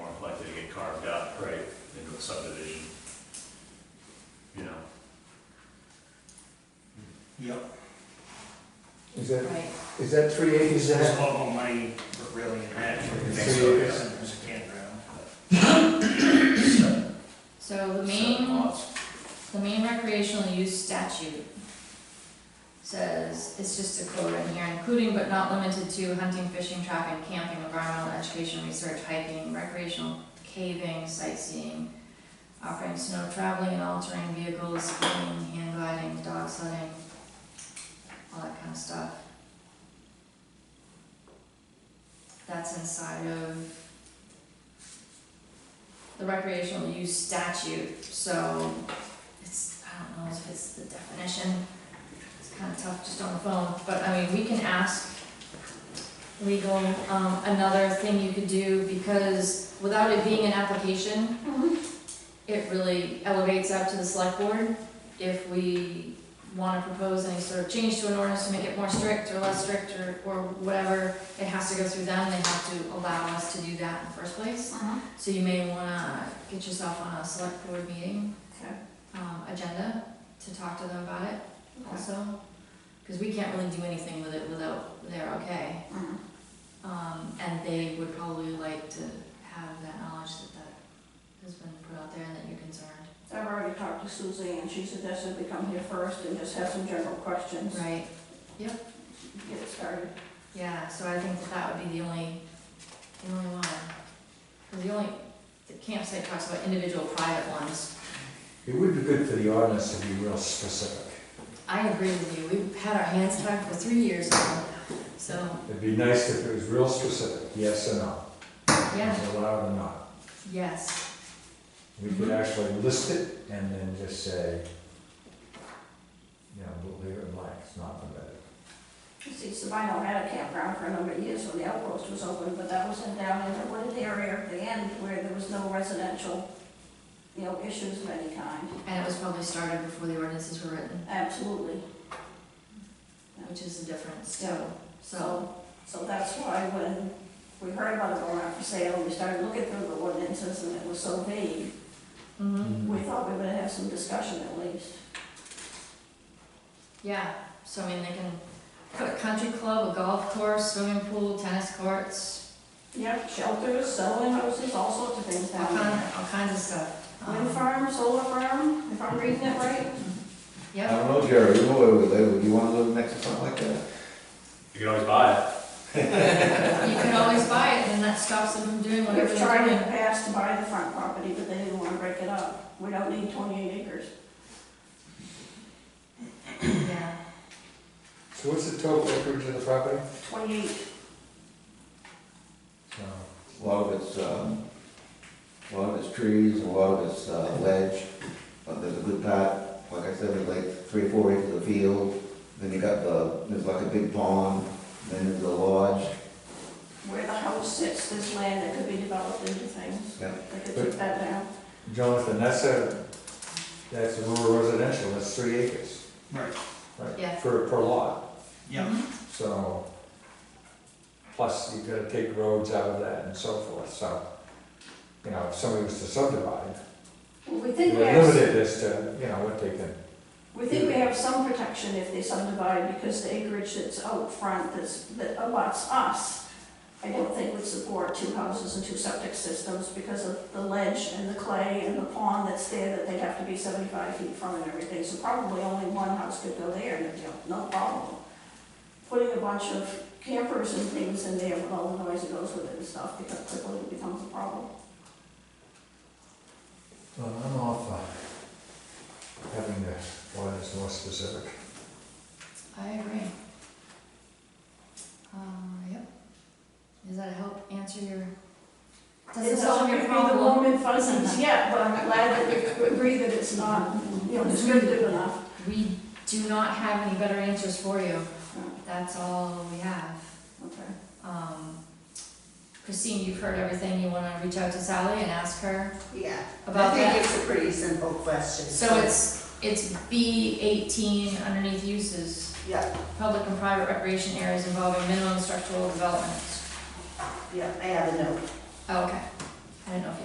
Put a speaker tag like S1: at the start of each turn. S1: get carved up, right, into a subdivision. You know,
S2: Yep.
S3: Is that,
S4: Right,
S3: is that three eighty, is
S2: There's a
S3: that?
S2: lot more money for really in that, for the
S1: Think
S2: next
S3: so,
S2: year,
S1: yeah.
S2: and there's a campground.
S1: seven,
S4: so the
S1: seven
S4: main,
S1: lots.
S4: the main recreational use statute says, it's just a quote in here, including but not limited to hunting, fishing, trapping, camping, environmental education, research, hiking, recreational caving, sightseeing, offering snow traveling and altering vehicles, skiing, hand gliding, dog sledding, all that kind of stuff. That's inside of the recreational use statute, so it's, I don't know if it's the definition. It's kind of tough just on the phone, but I mean, we can ask legal, um, another thing you could do, because without it being an application, it really elevates up to the select board if we wanna propose any sort of change to an ordinance to make it more strict or less strict or, or whatever, it has to go through them, they have to allow us to do that in the first place. So you may wanna get yourself on a select board meeting,
S5: Okay.
S4: um, agenda to talk to them about it also. Cause we can't really do anything with it without their okay.
S5: Mhm.
S4: Um, and they would probably like to have that knowledge that that has been put out there and that you're concerned.
S5: I've already talked to Suzie and she suggested we come here first and just have some general questions.
S4: Right.
S5: Get it started.
S4: Yeah, so I think that that would be the only, the only one. Cause the only, the campsite talks about individual private ones.
S3: It would be good for the audience to be real specific.
S4: I agree with you, we've had our hands tied for three years now, so,
S3: It'd be nice if it was real specific, yes or no.
S4: yeah,
S3: Is it allowed or not.
S4: yes,
S3: We could
S4: Mm-hmm.
S3: actually list it and then just say, you know, we'll leave it blank, it's not permitted.
S5: You See, Sabino had a campground for a number of years when the outpost was open, but that was in down in the wooded area at the end where there was no residential, you know, issues of any kind.
S4: and it was probably started before the ordinances were written,
S5: Absolutely.
S4: which is the difference,
S5: Yeah.
S4: so, so.
S5: So that's why when we heard about it going out for sale, we started looking through the ordinances and it was so vague.
S4: Mhm.
S5: We thought we would have some discussion at least.
S4: Yeah, so I mean, they can put a country club, a golf course, swimming pool, tennis courts,
S5: Yep, shelters, selling houses, all sorts of things
S4: all
S5: down there.
S4: kinds, all kinds of stuff. Um,
S5: Wind farm, solar farm, if I'm reading it right.
S6: I
S4: Yep,
S6: don't know, Jerry, you know where we live, would you wanna live next to something like that?
S1: You can always buy
S4: you can always buy it, and that stops them from doing whatever
S5: We've
S4: they're
S5: tried in the
S4: doing.
S5: past to buy the front property, but they didn't want to break it up. We don't need twenty-eight acres.
S4: Yeah,
S3: So what's the total acreage of the property?
S5: Twenty-eight,
S3: So,
S6: A lot of it's, um, a lot of it's trees, a lot of it's uh, ledge, but there's a good part, like I said, there's like three, or four acres of field. Then you got the, there's like a big pond, then there's a lodge,
S5: where the house sits, this land that could be developed into things.
S6: yeah.
S5: They could take that down.
S3: Jonathan, that's a, that's rural residential, that's three acres,
S2: Right.
S3: right?
S4: Yeah.
S3: For, per lot.
S2: Yep.
S3: So, plus you've gotta take roads out of that and so forth, so, you know, if somebody was to subdivide,
S5: Well, We
S3: we're
S5: think we have,
S3: limited as to, you know, what they can,
S5: we think we have some protection if they subdivide because the acreage that's out front that's, that abuts us, I don't think would support two houses and two septic systems because of the ledge and the clay and the pond that's there that they'd have to be seventy-five feet from and everything. So probably only one house could go there, and, you know, no problem. Putting a bunch of campers and things in there with all the noise that goes with it and stuff, because quickly it becomes a problem.
S3: well, I'm all for having the ordinance more specific.
S4: I agree. Um, yep. Does that help answer your, does it
S5: It's
S4: solve your
S5: It doesn't give
S4: problem?
S5: me the warm and fuzzies yet, but I'm glad that we agree that it's not, you know, descriptive enough.
S4: We do not have any better answers for you,
S7: Hmm.
S5: Oh,
S4: that's all we have.
S5: Okay.
S4: Um, Christine, you've heard everything, you wanna reach out to Sally and ask her
S7: Yeah,
S4: about
S7: I
S4: that?
S7: think it's a pretty simple question.
S4: So it's, it's B eighteen underneath uses,
S7: Yeah,
S4: public and private recreation areas involving minimum structural development.
S7: yeah, I have a note.
S4: Oh, Okay,